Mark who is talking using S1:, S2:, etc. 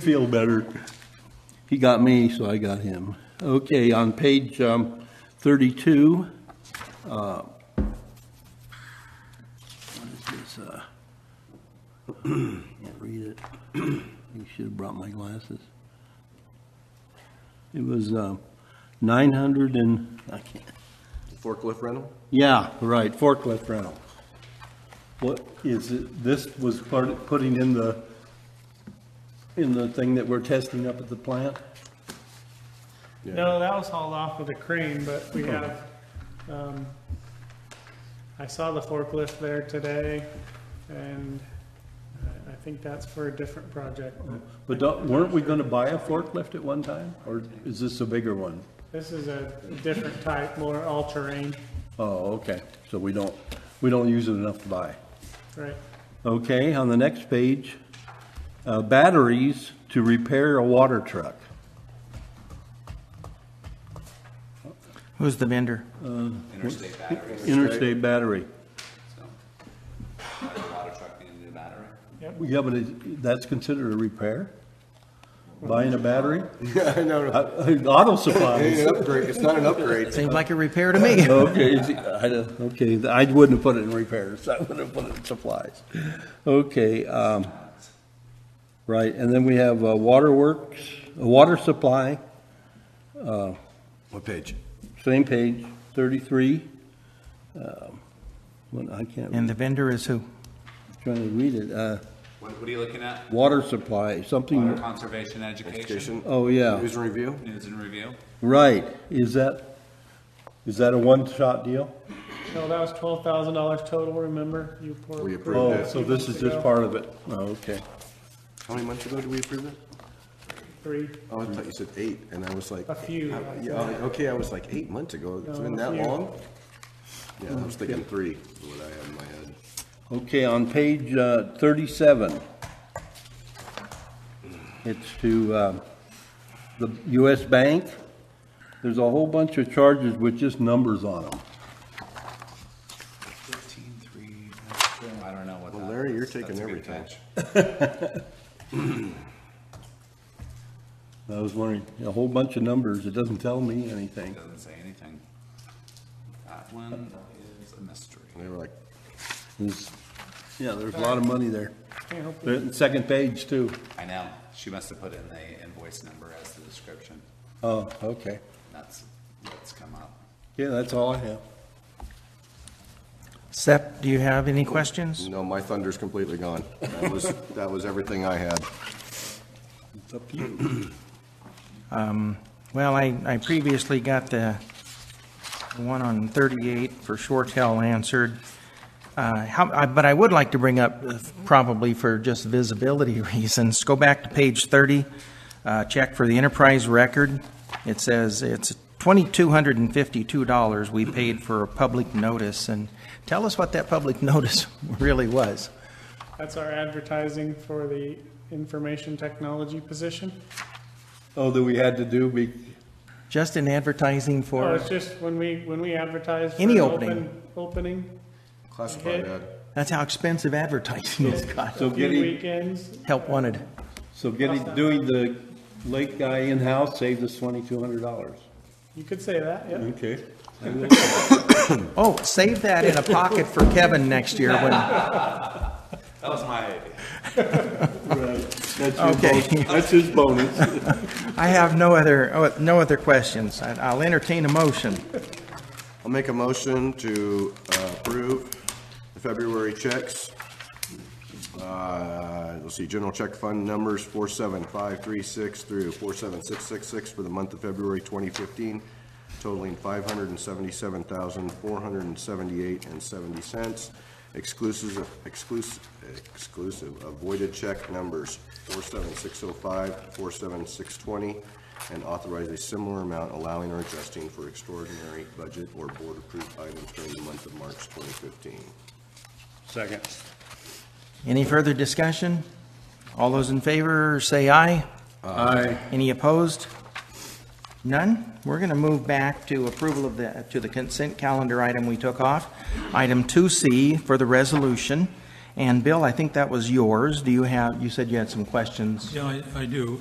S1: Feel better. He got me, so I got him. Okay, on page um, 32, uh, what is this? uh, Can't read it. I should have brought my glasses. It was um, 900 and, I can't,
S2: Forklift rental?
S1: yeah, right, forklift rental. What is it, this was part, of putting in the, in the thing that we're testing up at the plant?
S3: No, that was hauled off with a crane, but we have, um, I saw the forklift there today, and I- I think that's for a different project.
S1: But don't- weren't we gonna buy a forklift at one time, or is this a bigger one?
S3: This is a different type, more all-terrain,
S1: Oh, okay, so we don't, we don't use it enough to buy.
S3: right?
S1: Okay, on the next page, uh, batteries to repair a water truck.
S4: Who's the vendor?
S5: Interstate batteries,
S1: Interstate battery.
S5: so. Water truck needed a new battery.
S1: Yeah, but it- that's considered a repair? Buying a battery?
S2: Yeah, I know.
S1: Uh, Auto supplies.
S2: It's an upgrade. It's not an upgrade.
S4: Seems like a repair to me.
S1: Okay, is he- I don't- okay, I wouldn't have put it in repairs, I would have put it in supplies. Okay, um, right, and then we have uh, waterworks, uh, water supply,
S2: What page?
S1: same page, thirty-three. Um, What, I can't,
S4: And
S1: I'm
S4: the vendor is who?
S1: trying to read it, uh,
S5: What, what are you looking at?
S1: water supply,
S5: Water
S1: something,
S5: conservation education,
S2: Hmm. Education.
S1: oh, yeah,
S2: News and review.
S5: news and review.
S1: right, is that, is that a one-shot deal?
S3: No, that was twelve thousand dollars total, remember? You poured-
S2: We approved
S1: Oh,
S2: it.
S1: so this is just part of it, oh, okay.
S2: How many months ago did we approve that?
S3: Three,
S2: Oh, I thought you said eight, and I was like,
S3: a few.
S2: yeah, okay, I was like eight months ago. It's been that
S3: No, a few.
S2: long. Yeah, I was thinking three. Is what I had in my head.
S1: Okay, on page uh, 37, it's to um, the U.S. Bank. There's a whole bunch of charges with just numbers on them.
S5: Fifteen, three, I don't know what that.
S2: Well, Larry, you're
S5: is. That's
S2: taking
S5: a good
S2: everything.
S5: catch.
S1: I was wondering, a whole bunch of numbers, it doesn't tell me anything.
S5: Doesn't say anything. That one is a mystery.
S2: And they were like,
S1: There's- Yeah, there's a lot of money there.
S3: Can't help you.
S1: The Second page, too.
S5: I know, she must have put in the invoice number as the description.
S1: Oh, okay.
S5: That's what's come up.
S1: Yeah, that's all I have.
S4: Sep, do you have any questions?
S2: no, my thunder's completely gone. That was that was everything I had.
S1: It's up to you.
S4: Well, I, I previously got the one on 38 for Shortell answered. Uh, how, I, but I would like to bring up, uh, probably for just visibility reasons, go back to page 30, uh, check for the enterprise record. It says it's $2,252 we paid for a public notice, and tell us what that public notice really was.
S3: That's our advertising for the information technology position.
S1: Oh, that we had to do, be-
S4: Just in advertising
S3: Oh,
S4: for,
S3: it's just when we, when we advertise. for
S4: Any
S3: an
S4: opening.
S3: open- Opening,
S2: Classified ad.
S4: that's how expensive advertising is, God.
S1: so
S3: few
S1: getting,
S3: weekends,
S4: Help wanted.
S1: so getting, doing the lake guy in-house saved us $2,200.
S3: you could say that, yeah.
S1: Okay.
S4: Oh, save that in a pocket for Kevin next year when,
S5: That was my idea.
S1: That's your
S4: Okay.
S1: bonus. That's his bonus.
S4: I have no other, oh, no other questions. I- I'll entertain a motion.
S2: I'll make a motion to uh, approve the February checks. Uh, Let's see, general check fund numbers 47536 through 47666 for the month of February 2015 totaling 577478 and 70 cents, exclusive, exclusive, exclusive of voided check numbers 47605, 47620, and authorize a similar amount allowing or adjusting for extraordinary budget or board-approved items during the month of March 2015.
S1: Second.
S4: Any further discussion? All those in favor, say aye.
S1: Aye.
S4: Any opposed? None? We're going to move back to approval of the, to the consent calendar item we took off. Item 2C for the resolution, And Bill, I think that was yours. Do you have, you said you had some questions?
S6: Yeah, I, I do.